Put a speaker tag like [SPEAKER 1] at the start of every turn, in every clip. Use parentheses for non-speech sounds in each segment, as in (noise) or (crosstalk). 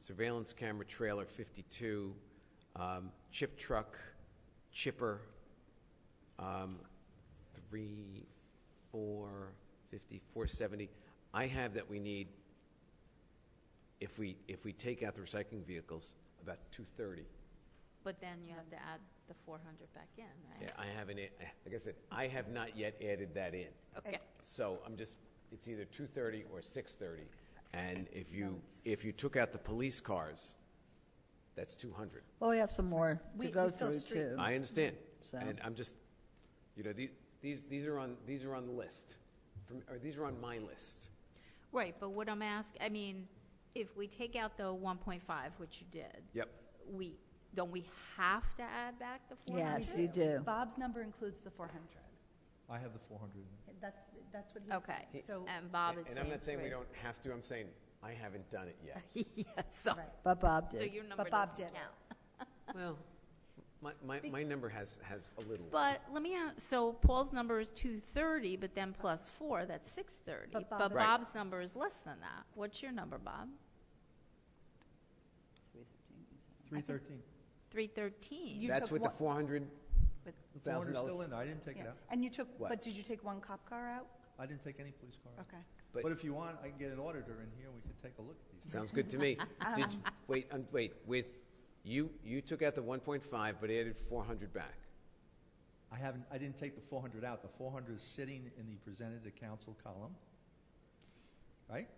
[SPEAKER 1] surveillance camera trailer 52, um, chip truck, chipper, um, 3, 4, 50, 470. I have that we need, if we, if we take out the recycling vehicles, about 230.
[SPEAKER 2] But then you have to add the 400 back in,
[SPEAKER 1] Yeah,
[SPEAKER 2] right?
[SPEAKER 1] I haven't, a- like I said, I have not yet added that in.
[SPEAKER 2] Okay,
[SPEAKER 1] So I'm just, it's either 2:30 or 6:30. And if you, if you took out the police cars, that's 200.
[SPEAKER 3] Well, we have some more to
[SPEAKER 2] We-
[SPEAKER 3] go
[SPEAKER 2] we still
[SPEAKER 3] through,
[SPEAKER 2] street-
[SPEAKER 3] too.
[SPEAKER 1] I understand.
[SPEAKER 3] So-
[SPEAKER 1] And I'm just, you know, the- these, these are on, these are on the list, From- or these are on my list.
[SPEAKER 2] right, but what I'm asking, I mean, if we take out the 1.5, which you did.
[SPEAKER 1] Yep.
[SPEAKER 2] We, don't we have to add back the 400?
[SPEAKER 3] Yes, you do.
[SPEAKER 4] Bob's number includes the 400.
[SPEAKER 5] I have the 400.
[SPEAKER 4] That's, that's what he
[SPEAKER 2] Okay,
[SPEAKER 4] said. So,
[SPEAKER 3] Um,
[SPEAKER 2] and Bob is
[SPEAKER 1] And I'm not saying we
[SPEAKER 2] three.
[SPEAKER 1] don't have to, I'm saying I haven't done it
[SPEAKER 2] (laughs)
[SPEAKER 1] yet.
[SPEAKER 2] Yeah, so,
[SPEAKER 4] Right.
[SPEAKER 3] But Bob
[SPEAKER 2] so
[SPEAKER 3] did.
[SPEAKER 2] your number
[SPEAKER 4] Bob
[SPEAKER 2] doesn't
[SPEAKER 4] did.
[SPEAKER 2] count.
[SPEAKER 1] Well, my, my, my number has, has a little.
[SPEAKER 2] But let me ask, so Paul's number is 230, but then plus 4, that's 630.
[SPEAKER 4] But Bob
[SPEAKER 2] But
[SPEAKER 4] is-
[SPEAKER 1] Right.
[SPEAKER 2] Bob's number is less than that. What's your number, Bob?
[SPEAKER 5] 313.
[SPEAKER 2] 313.
[SPEAKER 4] You
[SPEAKER 1] That's
[SPEAKER 4] took
[SPEAKER 1] with the
[SPEAKER 4] what-
[SPEAKER 1] 400,
[SPEAKER 5] The 400's
[SPEAKER 1] $1,000.
[SPEAKER 5] still in there. I didn't take it
[SPEAKER 4] yeah.
[SPEAKER 5] out.
[SPEAKER 4] And you took,
[SPEAKER 1] What?
[SPEAKER 4] but did you take one cop car out?
[SPEAKER 5] I didn't take any police car. out.
[SPEAKER 4] Okay.
[SPEAKER 1] But-
[SPEAKER 5] But if you want, I can get an auditor in here and we can take a look at these.
[SPEAKER 1] Sounds good to me. Did, you- wait, um, wait, with, you, you took out the 1.5, but added 400 back.
[SPEAKER 5] I haven't, I didn't take the 400 out. The 400 is sitting in the presented to council column. Right?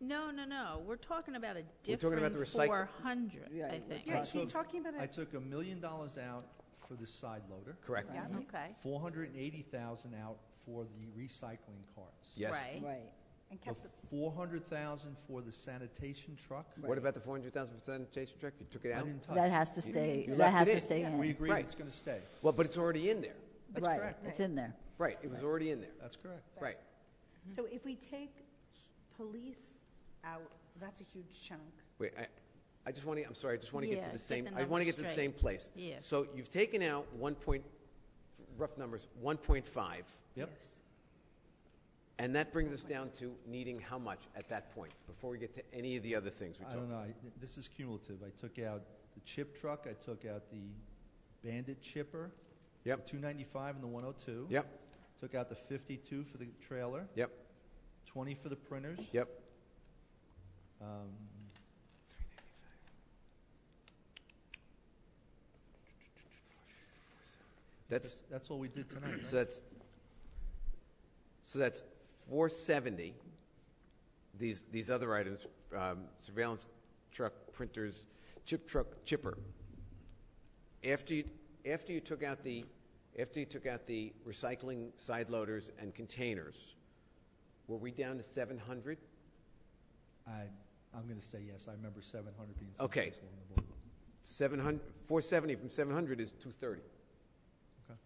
[SPEAKER 2] No, no, no, we're talking about a
[SPEAKER 1] We're talking about
[SPEAKER 2] different
[SPEAKER 1] the recycling.
[SPEAKER 2] 400,
[SPEAKER 3] Yeah,
[SPEAKER 2] I
[SPEAKER 3] we're
[SPEAKER 2] think.
[SPEAKER 4] Yeah,
[SPEAKER 5] I
[SPEAKER 4] she's
[SPEAKER 5] took-
[SPEAKER 4] talking about
[SPEAKER 5] I
[SPEAKER 4] it.
[SPEAKER 5] took a million dollars out for the side loader.
[SPEAKER 1] Correct?
[SPEAKER 4] Yeah.
[SPEAKER 2] Mm-hmm. Okay,
[SPEAKER 5] 480,000 out for the recycling carts.
[SPEAKER 1] Yes.
[SPEAKER 2] right.
[SPEAKER 3] Right.
[SPEAKER 4] And
[SPEAKER 5] The
[SPEAKER 4] kept the,
[SPEAKER 5] 400,000 for the sanitation truck.
[SPEAKER 1] What about the 400,000 for sanitation truck? You took it
[SPEAKER 5] I
[SPEAKER 1] out?
[SPEAKER 5] didn't touch.
[SPEAKER 3] That has to stay,
[SPEAKER 1] you
[SPEAKER 3] that
[SPEAKER 1] left
[SPEAKER 3] has
[SPEAKER 1] it
[SPEAKER 3] to
[SPEAKER 1] in.
[SPEAKER 3] stay in.
[SPEAKER 5] We agreed
[SPEAKER 1] Right.
[SPEAKER 5] it's going to stay.
[SPEAKER 1] Well, but it's already in there.
[SPEAKER 5] That's
[SPEAKER 3] Right,
[SPEAKER 5] correct.
[SPEAKER 3] It's in there.
[SPEAKER 1] Right, it was already in there.
[SPEAKER 5] That's correct.
[SPEAKER 1] Right.
[SPEAKER 4] so if we take police out, that's a huge chunk.
[SPEAKER 1] Wait, I, I just want to, I'm sorry, I just want to get
[SPEAKER 2] Yeah,
[SPEAKER 1] to the
[SPEAKER 2] get
[SPEAKER 1] same,
[SPEAKER 2] the
[SPEAKER 1] I want to
[SPEAKER 2] numbers
[SPEAKER 1] get to the same
[SPEAKER 2] straight.
[SPEAKER 1] place.
[SPEAKER 2] Yeah.
[SPEAKER 1] So you've taken out 1 point, rough numbers, 1.5,
[SPEAKER 5] Yep.
[SPEAKER 1] and that brings us down to needing how much at that point, before we get to any of the other things we
[SPEAKER 5] I
[SPEAKER 1] talked
[SPEAKER 5] don't
[SPEAKER 1] about?
[SPEAKER 5] know. I- This is cumulative. I took out the chip truck. I took out the Bandit chipper.
[SPEAKER 1] Yep.
[SPEAKER 5] The 295 and the 102.
[SPEAKER 1] Yep,
[SPEAKER 5] Took out the 52 for the trailer.
[SPEAKER 1] yep,
[SPEAKER 5] 20 for the printers.
[SPEAKER 1] yep.
[SPEAKER 5] Um,
[SPEAKER 1] That's,
[SPEAKER 5] that's all we
[SPEAKER 1] (clears throat)
[SPEAKER 5] did tonight.
[SPEAKER 1] So
[SPEAKER 5] right?
[SPEAKER 1] that's, so that's 470, these, these other items, um, surveillance truck, printers, chip truck, chipper. After you, after you took out the, after you took out the recycling side loaders and containers, were we down to 700?
[SPEAKER 5] I, I'm going to say yes. I remember 700 being
[SPEAKER 1] Okay.
[SPEAKER 5] someplace along the board.
[SPEAKER 1] 700, 470 from 700 is 230.
[SPEAKER 5] Okay.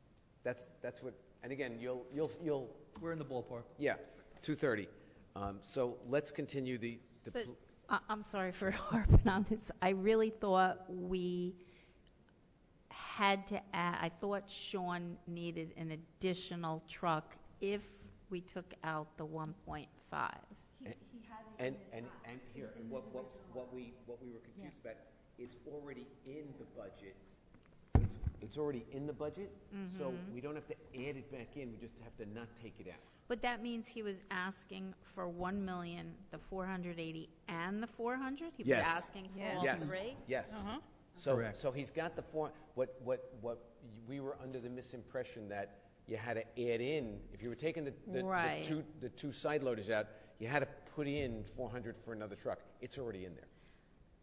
[SPEAKER 1] That's, that's what, and again, you'll, you'll, you'll,
[SPEAKER 5] We're in the ballpark.
[SPEAKER 1] yeah, 230. Um, So let's continue the, the
[SPEAKER 2] But
[SPEAKER 1] pl-
[SPEAKER 2] I- I'm sorry for (laughs) harping on this. I really thought we had to add, I thought Sean needed an additional truck if we took out the 1.5.
[SPEAKER 4] He, he had it in
[SPEAKER 1] And,
[SPEAKER 4] his
[SPEAKER 1] and,
[SPEAKER 4] box.
[SPEAKER 1] and here, and what, what, what we, what we were confused about, it's already in the budget. It's, it's already in the budget, so we don't have to add it back in, we just have to not take it out.
[SPEAKER 2] But that means he was asking for 1 million, the 480, and the 400? He was
[SPEAKER 1] Yes.
[SPEAKER 2] asking for all
[SPEAKER 1] Yes,
[SPEAKER 2] three?
[SPEAKER 1] yes. So,
[SPEAKER 5] Correct.
[SPEAKER 1] so he's got the four, what, what, what, we were under the misimpression that you had to add in, if you were taking the, the- the
[SPEAKER 2] Right.
[SPEAKER 1] two, the two side loaders out, you had to put in four hundred for another truck. It's already in there.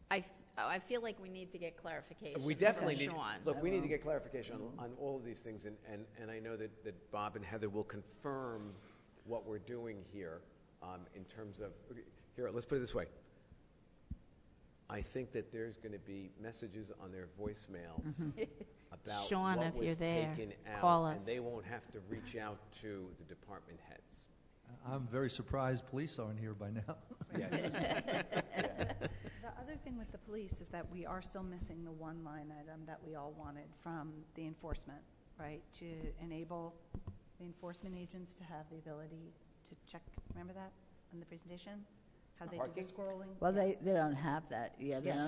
[SPEAKER 2] I, f- oh, I feel like we need to get clarification.
[SPEAKER 1] We definitely
[SPEAKER 2] from
[SPEAKER 1] need,
[SPEAKER 2] Sean.
[SPEAKER 1] look, we need to get clarification on, on all of these things, and, and, and I know that, that Bob and Heather will confirm what we're doing here um, in terms of, okay, here, let's put it this way. I think that there's going to be messages on their voicemails (laughs) about
[SPEAKER 2] Mm-hmm. Sean,
[SPEAKER 1] what
[SPEAKER 2] if you're
[SPEAKER 1] was
[SPEAKER 2] there,
[SPEAKER 1] taken
[SPEAKER 2] call
[SPEAKER 1] out,
[SPEAKER 2] us.
[SPEAKER 1] and they won't have to reach out to the department heads.
[SPEAKER 5] I- I'm very surprised police aren't here by now. (laughs)
[SPEAKER 1] Yeah,
[SPEAKER 4] The other thing with the police is that we are still missing the one line item that we all wanted from the enforcement, right? To enable the enforcement agents to have the ability to check, remember that in the presentation? How they did
[SPEAKER 1] Parking?
[SPEAKER 4] the scrolling?
[SPEAKER 3] Well,
[SPEAKER 4] Yeah.
[SPEAKER 3] they, they don't have that. Yeah, they
[SPEAKER 4] Yes.
[SPEAKER 3] don't